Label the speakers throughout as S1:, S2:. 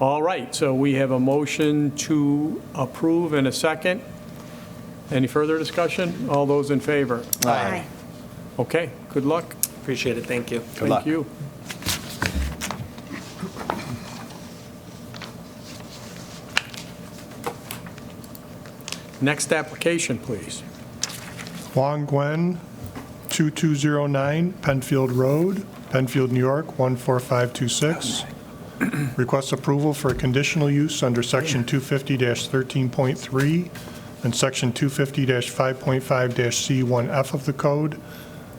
S1: All right, so we have a motion to approve and a second. Any further discussion? All those in favor?
S2: Aye.
S1: Okay, good luck.
S3: Appreciate it, thank you.
S1: Thank
S2: luck.
S1: you. Next application, please.
S4: Long Gwen, 2209 Penfield Road, Penfield, New York, 14526. Request approval for a conditional use under Section 250-13.3 and Section 250-5.5-C1F of the code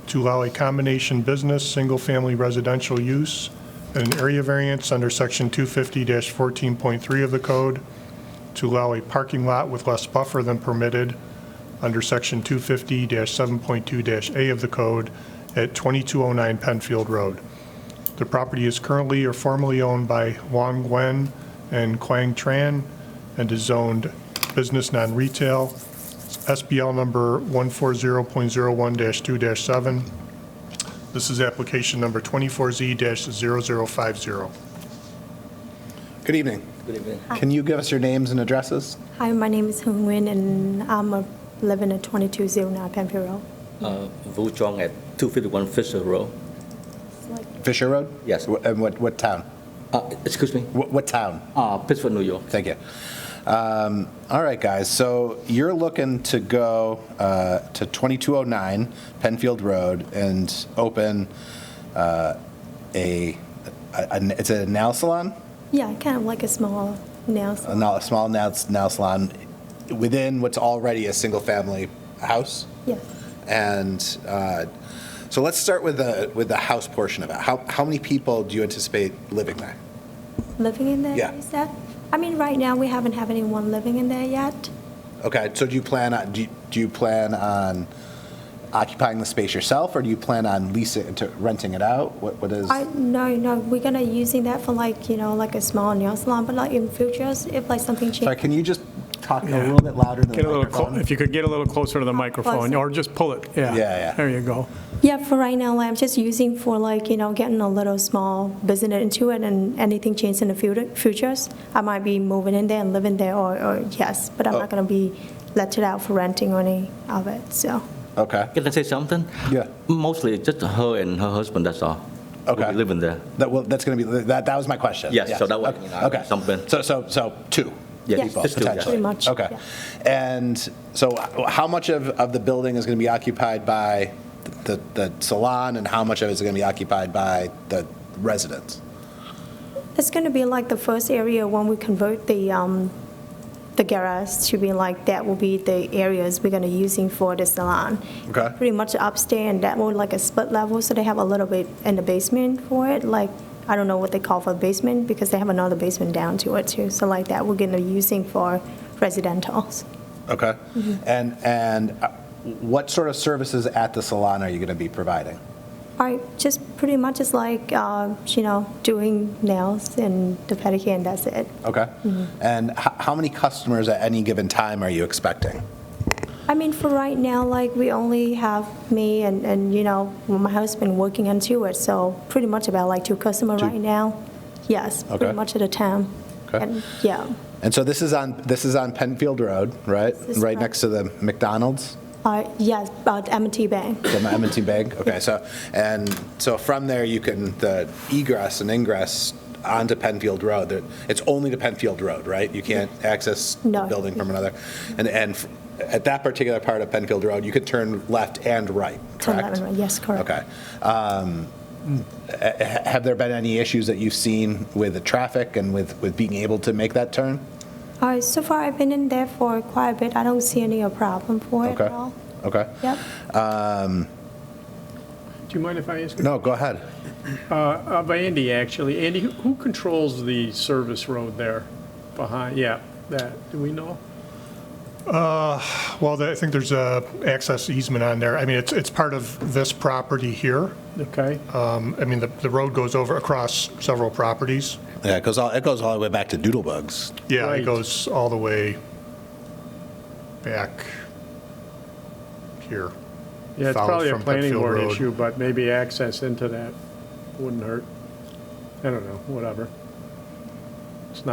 S4: to allow a combination business, single-family residential use, and an area variance under Section 250-14.3 of the code to allow a parking lot with less buffer than permitted under Section 250-7.2-A of the code at 2209 Penfield Road. The property is currently or formerly owned by Wang Gwen and Quang Tran and is zoned business non-retail, SBL number 140.01-2-7. This is application number 24Z-0050.
S2: Good evening. Good evening. Can you give us your names and addresses?
S5: Hi, my name is Hung Nguyen, and I'm uh, living at 2209 Penfield Road.
S6: Uh, Vu Chong at 251 Fisher Road.
S2: Fisher Road?
S6: Yes.
S2: Wh- And what, what town?
S6: Uh, Excuse me,
S2: What, what town?
S6: Uh, Pittsburgh, New York.
S2: Thank you. Um, All right, guys, so you're looking to go uh, to 2209 Penfield Road and open uh, a, a- a- it's a nail salon?
S5: Yeah, kind of like a small nail
S2: A
S5: salon.
S2: nail- a small nail nail salon within what's already a single-family house?
S5: Yes.
S2: And uh, so let's start with the, with the house portion of it. How, how many people do you anticipate living there?
S5: Living in there,
S2: Yeah.
S5: you said? I mean, right now, we haven't have anyone living in there yet.
S2: Okay, so do you plan on, do you- do you plan on occupying the space yourself, or do you plan on leasing, to renting it out? What, what is,
S5: I, no, no, we're gonna using that for like, you know, like a small nail salon, but like in futures, if like something
S2: sorry,
S5: changes.
S2: can you just talk a little bit louder than
S1: Get
S2: the
S1: a little, clo-
S2: microphone?
S1: if you could get a little closer to the microphone,
S5: Closer.
S1: or just pull it, yeah.
S2: Yeah, yeah.
S1: There you go.
S5: Yeah, for right now, I'm just using for like, you know, getting a little small business into it, and anything changes in the futu- futures, I might be moving in there and living there, or, or yes, but I'm not gonna be let it out for renting or any of it, so.
S2: Okay,
S6: Can I say something?
S2: Yeah.
S6: Mostly just her and her husband, that's all.
S2: Okay.
S6: Will be living there.
S2: that, well, that's gonna be, that, that was my question.
S6: Yes, so that was,
S2: Okay,
S6: you know,
S2: Okay,
S6: something.
S2: so, so, so, two?
S6: Yes,
S2: people,
S6: just two, yes.
S2: potentially.
S5: Pretty much,
S2: Okay.
S5: yeah.
S2: And so how much of, of the building is gonna be occupied by the, the salon, and how much of it is gonna be occupied by the residents?
S5: It's gonna be like the first area when we convert the, um, the garage to be like, that will be the areas we're gonna using for the salon.
S2: Okay.
S5: Pretty much upstairs, and that will like a split level, so they have a little bit in the basement for it, like, I don't know what they call for basement, because they have another basement down to it too, so like that, we're gonna using for residentals.
S2: Okay.
S5: Mm-hmm.
S2: And, and uh, what sort of services at the salon are you going to be providing?
S5: I just pretty much is like, uh, you know, doing nails and the pedicure, and that's it.
S2: Okay.
S5: Mm-hmm.
S2: And h- how many customers at any given time are you expecting?
S5: I mean, for right now, like, we only have me and, and, you know, my husband working into it, so pretty much about like two customer right now. Yes,
S2: Okay.
S5: pretty much at a time.
S2: Okay.
S5: And, yeah,
S2: And so this is on, this is on Penfield Road, right?
S5: This is
S2: Right
S5: correct.
S2: next to the McDonald's,
S5: uh, yes, about M&T Bank.
S2: the m and Bank? Okay, so, and so from there, you can, the egress and ingress onto Penfield Road, there- it's only to Penfield Road, right? You can't access the
S5: No.
S2: building from another? And, and f- at that particular part of Penfield Road, you could turn left and right,
S5: Turn
S2: correct?
S5: left and right. Yes, correct.
S2: Okay. Um, ha- Have there been any issues that you've seen with the traffic and with, with being able to make that turn?
S5: All right, Uh, so far I've been in there for quite a bit. I don't see any uh, problem for it
S2: Okay.
S5: at all.
S2: Okay.
S5: Yep.
S7: Do you mind if I ask?
S2: No, go ahead.
S7: Uh, By Andy, actually. Andy, who- who controls the service road there behind, yeah, that, do we know?
S4: Well, the- I think there's a access easement on there. I mean, it's, it's part of this property here.
S7: Okay,
S4: Um, I mean, the, the road goes over across several properties.
S2: Yeah, it goes all, it goes all the way back to Doodlebugs.
S4: Yeah, it
S7: Right.
S4: goes all the way back here.
S7: yeah, it's
S4: Followed
S7: probably a
S4: from
S7: planning
S4: Pittsfield
S7: board
S4: Road.
S7: issue, but maybe access into that wouldn't hurt. I don't know, whatever.